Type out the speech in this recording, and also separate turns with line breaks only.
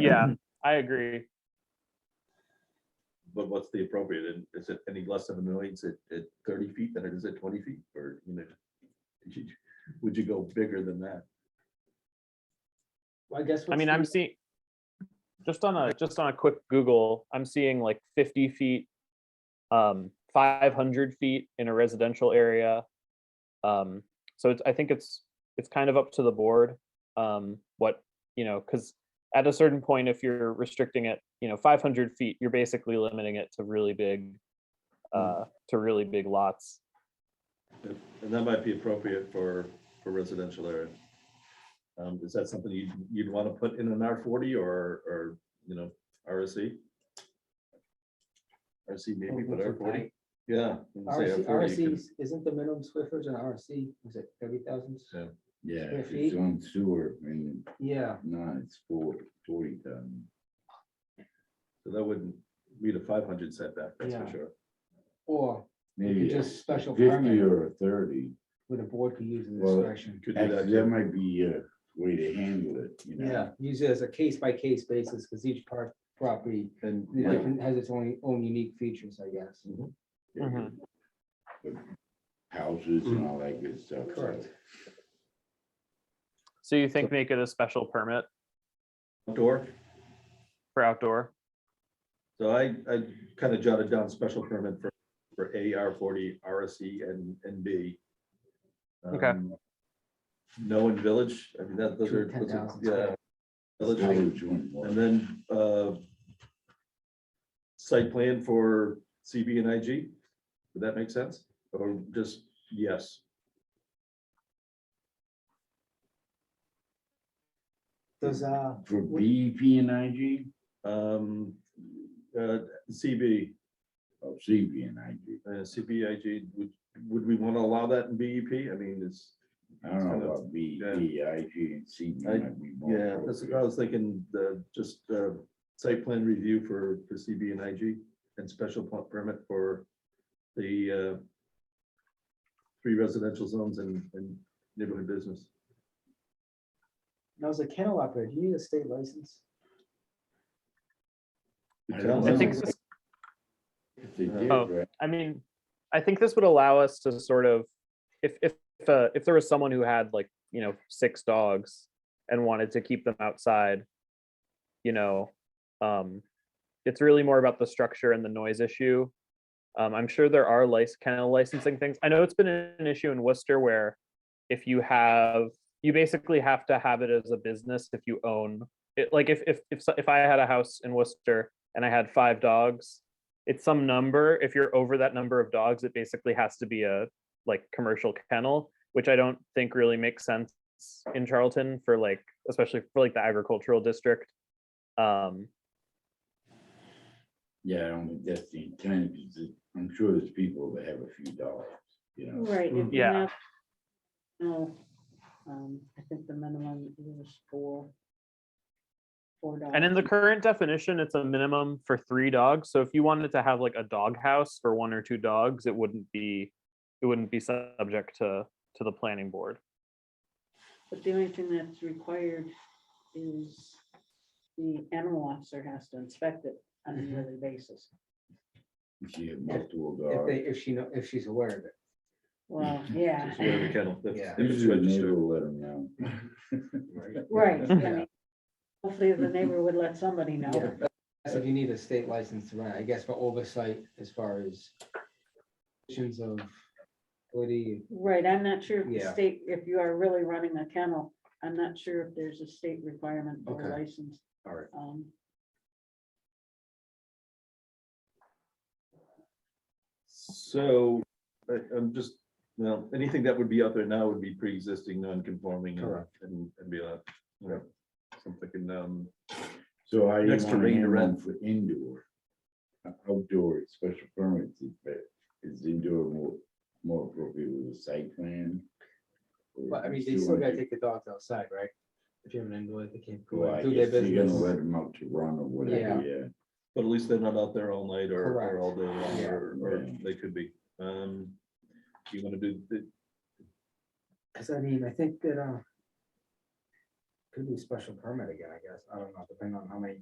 Yeah, I agree.
But what's the appropriate, and is it any less of an annoyance at, at thirty feet than it is at twenty feet, or, you know? Would you go bigger than that?
Well, I guess.
I
what's
mean,
the-
I'm seeing, just on a, just on a quick Google, I'm seeing like fifty feet, um, five hundred feet in a residential area. Um, so it's, I think it's, it's kind of up to the board, um, what, you know, because at a certain point, if you're restricting it, you know, five hundred feet, you're basically limiting it to really big, uh, to really big lots.
And that might be appropriate for, for residential area. Um, is that something you'd, you'd want to put in an R forty or, or, you know, RSC? RC maybe,
Mm-hmm.
but R forty, yeah. you can say
RC
R40, you
RC, isn't the minimum Swiffer's an RC, was it thirty thousand?
Yeah.
Yeah,
Square
if
feet?
it's on sewer and
Yeah,
not, it's four, forty thousand.
could- So that wouldn't meet a five hundred setback, that's for
Yeah.
sure.
or
Maybe
just
a
special
fifty
permit.
or a thirty.
with a board could use in
Well,
discretion.
Could do that,
Actually,
yeah.
that might be a way to handle it, you know?
Yeah, use it as a case by case basis, because each part property
And,
the
Yeah.
different- has its own, own unique features, I guess.
Mhm.
But Houses and
Mm.
all that good stuff. so
Correct.
So you think make it a special permit
outdoor,
for outdoor?
so I, I kind of jotted down special permit for, for A, R forty, RSC, and, and B.
Okay.
Um, No in village, I mean, that, those
Two
are,
ten
those are-
thousand
yeah.
square.
Village, I-
village one was-
And then, uh, site plan for CB and IG, would that make sense? Or just, yes,
Does, uh,
For B, P and I G,
um, uh, CB,
or Oh, C, P and I G,
uh, CBIG, would, would we want to allow that in BEP? I mean, it's,
I don't
Kind
know
of,
about B,
yeah.
P, I G and C. P
I-
might be more
yeah, that's, I
appropriate.
was thinking, the, just, uh, site plan review for, for CB and IG and special pl- permit for the, uh, three residential zones and, and neighborhood business.
now as a kennel operator, do you need a state license?
I don't
I
know.
think,
Yeah.
this-
If they did,
Oh.
right,
I mean, I think this would allow us to sort of, if, if, if, uh, if there was someone who had like, you know, six dogs and wanted to keep them outside, you know, um, it's really more about the structure and the noise issue. Um, I'm sure there are lice, kennel licensing things. I know it's been an issue in Worcester where if you have, you basically have to have it as a business if you own it. Like if, if, if, so- if I had a house in Worcester and I had five dogs, it's some number. If you're over that number of dogs, it basically has to be a like commercial kennel, which I don't think really makes sense in Charlton for like, especially for like the agricultural district. Um,
yeah, I don't think that's the intent, 'cause it- I'm sure there's people that have a few dollars, you know?
Right. if
Yeah.
not- No, um, I think the minimum is four. Four dollars.
and in the current definition, it's a minimum for three dogs. So if you wanted to have like a dog house for one or two dogs, it wouldn't be, it wouldn't be subject to, to the planning board.
But the only thing that's required is the animal officer has to inspect it on a
Mhm.
yearly basis.
If you have multiple
If
dogs.
they, if she, know if she's aware of it.
Well, yeah,
Just wear the kennel, that's-
Yeah.
if it's
Usually the
registered.
neighbor will let them know.
right. I
Yeah.
mean, Hopefully the neighbor would let somebody know.
So you need a state license to run, I guess, for oversight as far as conditions of, what do you,
Right, I'm not sure if the
Yeah.
state, if you are really running a kennel, I'm not sure if there's a state requirement for a
Okay.
license.
all right.
Um,
So, I, I'm just, well, anything that would be out there now would be pre-existing, non-conforming. and-
Correct.
And, and be like, you know, something, um,
So I
Next
want
to
to
rain to
handle
rent.
them for indoor. Uh, Outdoor, is special permits, is that, is indoor more, more appropriate with a site plan? Or
But I
you
mean, they still
want
gotta
to-
take the dogs outside, right? If you have an indoor, they can't go
Well,
out
I
and do their
guess you're gonna
business.
let them out to run or whatever, yeah.
but at least they're not out there all night or, or
Correct.
all day long,
Yeah.
or, or
Yeah.
they could be. Um, you wanna do, the-
Cause I mean, I think that, uh, could be special permit again, I guess, I don't know, depending on how many